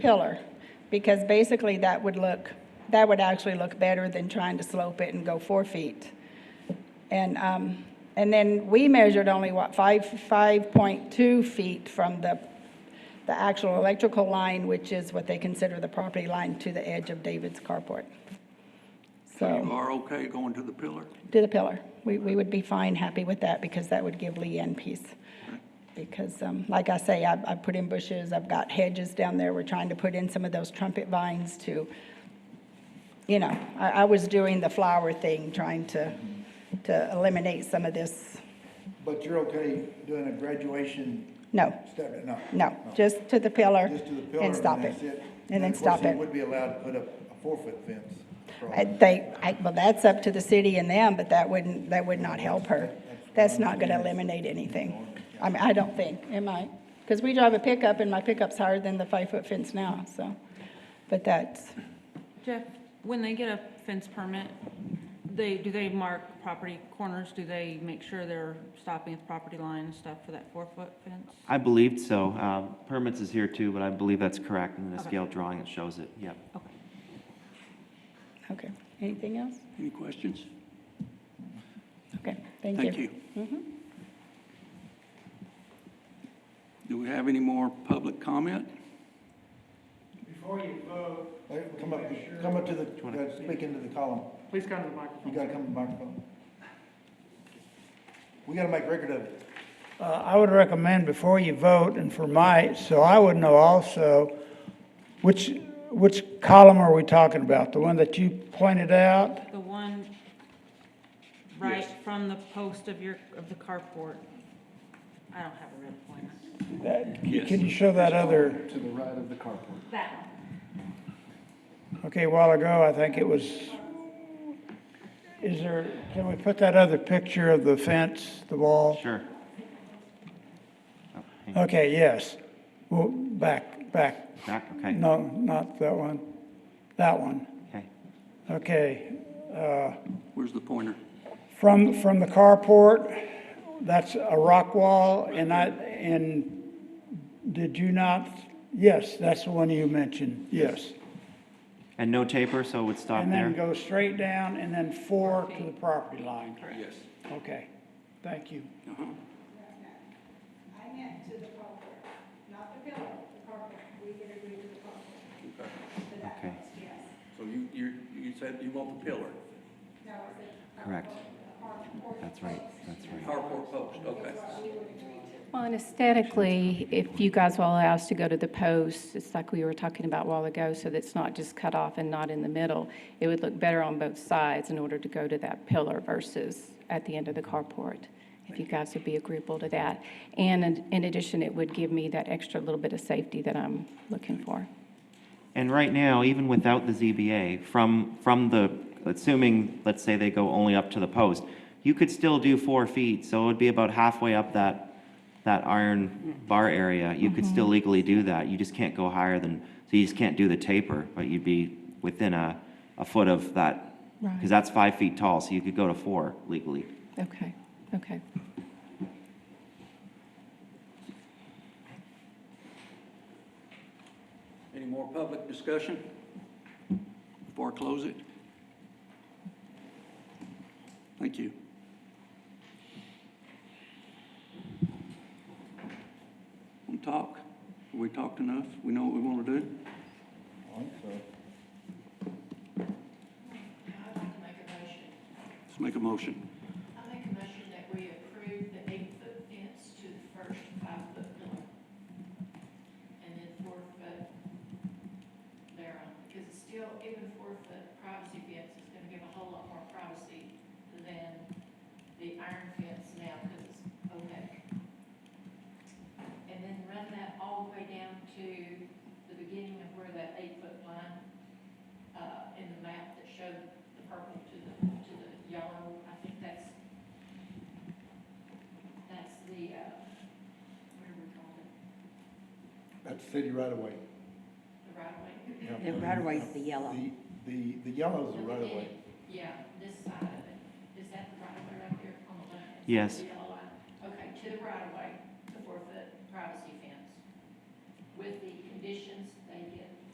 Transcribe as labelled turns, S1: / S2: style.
S1: pillar, because basically that would look, that would actually look better than trying to slope it and go four feet. And, um, and then we measured only, what, five, five point two feet from the, the actual electrical line, which is what they consider the property line to the edge of David's carport.
S2: So you
S1: So,
S2: are okay going to the pillar?
S1: to the pillar, we, we would be fine, happy with that, because that would give Leanne peace. Because, um, like I say, I, I put in bushes, I've got hedges down there, we're trying to put in some of those trumpet vines to, you know, I, I was doing the flower thing, trying to, to eliminate some of this
S3: But you're okay doing a graduation
S1: No,
S3: step, no?
S1: no, just to the pillar
S3: Just to the pillar?
S1: and stop it.
S3: that's it?
S1: And then
S3: of course,
S1: stop
S3: you
S1: it.
S3: would be allowed to put up a four-foot fence. across.
S1: I- They, I- well, that's up to the city and them, but that wouldn't, that would not help her. That's not going to eliminate anything. I mean, I don't think, am I? Because we drive a pickup and my pickup's higher than the five-foot fence now, so. But that's,
S4: Jeff, when they get a fence permit, they, do they mark property corners? Do they make sure they're stopping at the property line and stuff for that four-foot fence?
S5: I believed so. Uh, Permits is here too, but I believe that's correct, and the
S4: Okay.
S5: scale drawing, it shows it, yep.
S4: Okay.
S1: okay. Anything else?
S2: Any questions?
S1: Okay, thank you.
S2: Thank you. Mm-hmm. Do we have any more public comment?
S6: Before you vote,
S3: Hey, Come up, come up to the, uh, speak into the column.
S6: please come to the
S3: You
S6: microphone.
S3: gotta come to the microphone. We gotta make record of it.
S6: Uh, I would recommend before you vote and for my, so I would know also, which, which column are we talking about? The one that you pointed out?
S4: The one right from the post of your, of the carport. I don't have a red pointer.
S6: That-
S2: Yes.
S6: Can you show that other,
S3: To the right of the carport.
S4: That one.
S6: okay, a while ago, I think it was, is there, can we put that other picture of the fence, the wall?
S5: Sure. Oh, hang on.
S6: Okay, yes. Well, back, back.
S5: Back, okay.
S6: No, not that one. That one.
S5: Okay.
S6: Okay.
S2: Where's the pointer?
S6: From, from the carport, that's a rock wall, and I, and did you not? Yes, that's the one you mentioned, yes.
S5: And no taper, so it would stop
S6: And then
S5: there?
S6: go straight down, and then four to the property line.
S2: Yes.
S6: Okay, thank you.
S1: I meant to the carport, not the pillar, the carport. We did agree to the carport.
S5: Okay,
S2: So you, you, you said you want the pillar,
S5: correct. That's right, that's right.
S2: carport post, okay.
S7: Well, and aesthetically, if you guys will allow us to go to the post, it's like we were talking about a while ago, so that's not just cut off and not in the middle. It would look better on both sides in order to go to that pillar versus at the end of the carport, if you guys would be agreeable to that. And in- in addition, it would give me that extra little bit of safety that I'm looking for.
S5: And right now, even without the ZBA, from, from the, assuming, let's say they go only up to the post, you could still do four feet, so it would be about halfway up that, that iron bar area. You could still legally do that, you just can't go higher than, so you just can't do the taper, but you'd be within a, a foot of that.
S7: Right.
S5: Because that's five feet tall, so you could go to four legally.
S7: Okay, okay.
S2: Any more public discussion before I close it? Thank you. Want to talk? We talked enough? We know what we want to do?
S3: I think so.
S8: I'd like to make a motion.
S2: Let's make a motion.
S8: I make a motion that we approve the eight-foot fence to the first five-foot pillar. And then four-foot thereon, because it's still, even four-foot privacy fence is gonna give a whole lot more privacy than the iron fence now, because it's opaque. And then run that all the way down to the beginning of where that eight-foot line, uh, in the map that showed the purple to the, to the yellow, I think that's, that's the, uh, what do we call it,
S3: That's city right away.
S8: the right of way?
S3: The right away is the yellow. The, the, the yellow is the right away.
S8: Yeah, this side of it, is that the right of way right there on the left?
S5: Yes,
S8: The yellow.